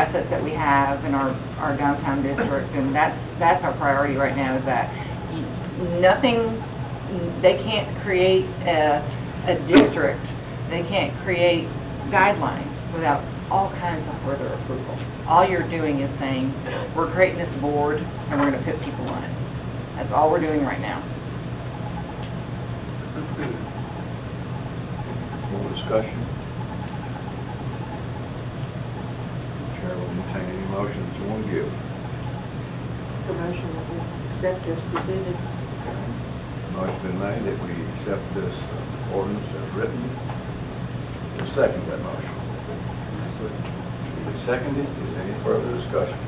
assets that we have in our, our downtown district, and that's, that's our priority right now, is that you- nothing, they can't create a, a district, they can't create guidelines without all kinds of further approval. All you're doing is saying, we're creating this board, and we're gonna put people on it. That's all we're doing right now. More discussion? Chair will entertain any motions you want to give. The motion that we accept as presented. Motion been made that we accept this uh, ordinance as written. We'll second that motion. Duly seconded, is there any further discussion?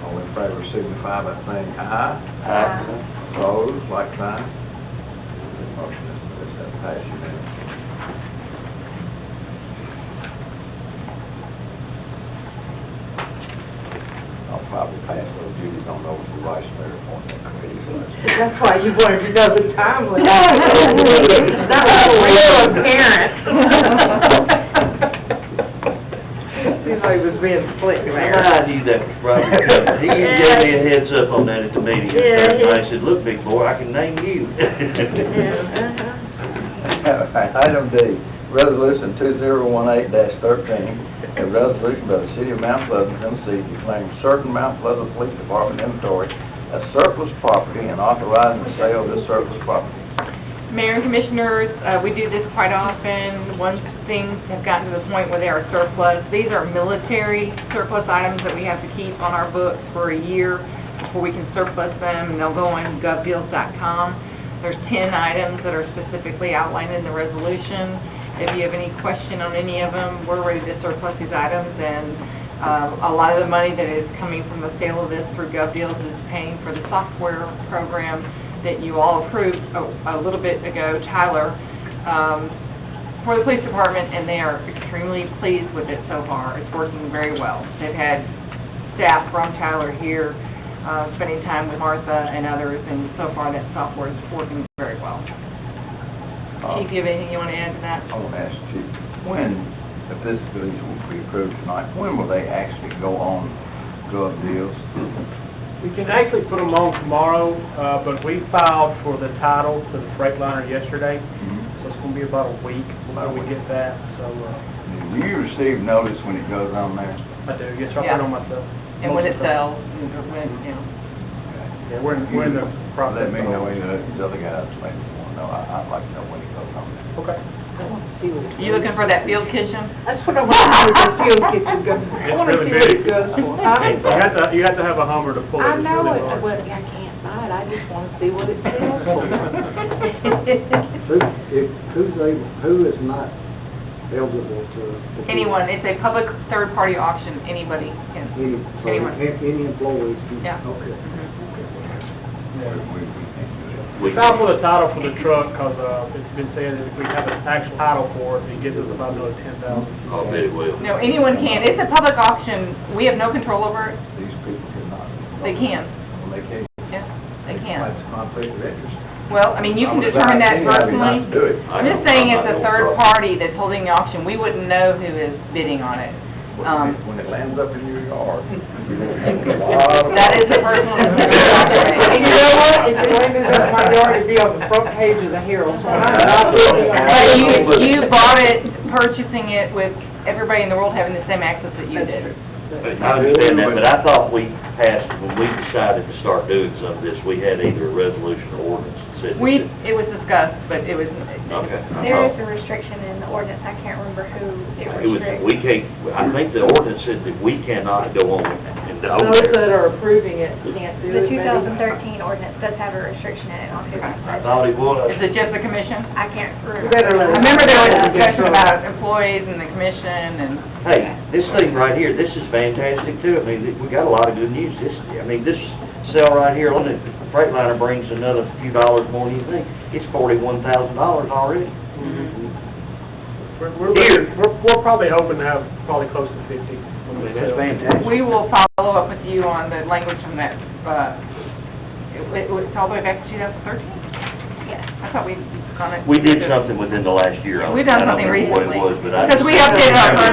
All in favor signify by saying aye. Aye. Opposed, like sign. Motion is, is that passed unanimously? I'll probably pass those duties on over to the vice mayor on that committee. so that's- That's why you wanted to know the timeline. That was a real parent. Seems like it was being slick I there. knew that was probably coming. He even gave me a heads up on that at the meeting. And I said, look, big boy, I can name you. All right, Item D, resolution two zero one eight thirteen, a resolution by the city of Mount Pleasant, Tennessee, declaring certain Mount Pleasant Police Department inventory as surplus property and authorizing the sale of this surplus property. Mayor and Commissioners, uh, we do this quite often. Once things have gotten to the point where they are surplus, these are military surplus items that we have to keep on our books for a year before we can surplus them, and they'll go on govdeals.com. There's 10 items that are specifically outlined in the resolution. If you have any question on any of them, we're ready to surplus these items, and uh, a lot of the money that is coming from the sale of this through GovDeals is paying for the software program that you all approved a a little bit ago, Tyler, um, for the police department, and they are extremely pleased with it so far. It's working very well. They've had staff from Tyler here, uh, spending time with Martha and others, and so far that software is working very well. Uh, Chief, you have anything you want to add to that? I want to ask Chief, when, if this bill will be approved tonight, when will they actually go on drug deals? We can actually put them on tomorrow, uh, but we filed for the title to the Freightliner yesterday, so it's gonna be about a week before we get that, so, uh, Do you receive notice when it goes on there? I do, yes, I'll put it on myself. And when it sells, and when, you know. Yeah, we're in, we're in the process. Let me know, any of these other guys, like, want to know, I- I'd like to know when it goes on there. Okay. I want to see what it You looking is. for that field kitchen? That's what I want to see, the field kitchen goes. I It's want to really see what it big. goes for. You have to, you have to have a Hummer to pull it, I it's know really it, hard. but I can't buy it, I just want to see what it sells for. Who, if, who's able, who is not eligible to? to do- Anyone, it's a public third-party auction, anybody can. Any, so Anyone. Mm-hmm. a- any employees? can- Yeah. Okay. We, we we can't do that. We filed for the title for the truck, cause, uh, it's been said that if we have an actual title for it, it gives us about another ten thousand. I'll bet it will. No, anyone can, it's a public auction, we have no control over it, These people cannot. they can, Well, They can't. yeah, they can. That's conflict of interest. Well, I mean, you I can would determine advise that anybody not to personally. do it. I'm just saying it's a third party that's holding the auction, we wouldn't know who is bidding on it. When Um, it- When it lands up in your yard. you're gonna have a lot of- That is a personal And you know what, if you landed up in my yard, it'd be on the front page of the Herald. so I'm not looking at But it. you, you bought it, purchasing it with everybody in the world having the same access that you did. But I understand that, but I thought we passed, when we decided to start doing some of this, we had either a resolution or ordinance that said. We, it was discussed, but it was, Okay. There is a restriction in the ordinance, I can't remember who it Oh. It was, restricts. we can't, I think the ordinance said that we cannot go on and own Those there. that are approving it can't do The it. maybe. 2013 ordinance does have a restriction in it on who can I pledge. thought it was. is it just the commission? I can't You better I let us remember. remember there was a know. discussion about employees and the commission and, Hey, this thing right here, this is fantastic too. I mean, we got a lot of good news. This, I mean, this sale right here on the Freightliner brings another few dollars more than you think. It's forty-one thousand dollars already. Mm-hmm. We're, we're, looking- we're, we're probably hoping to have probably close to fifty. I when we mean, that's sell. fantastic. we will follow up with you on the language from that, uh, it, it was all the way back to 2013? Yes. I thought we on it. We did something within the last year. I don't- We've done I don't something remember what it recently. was, but I Because just- we updated our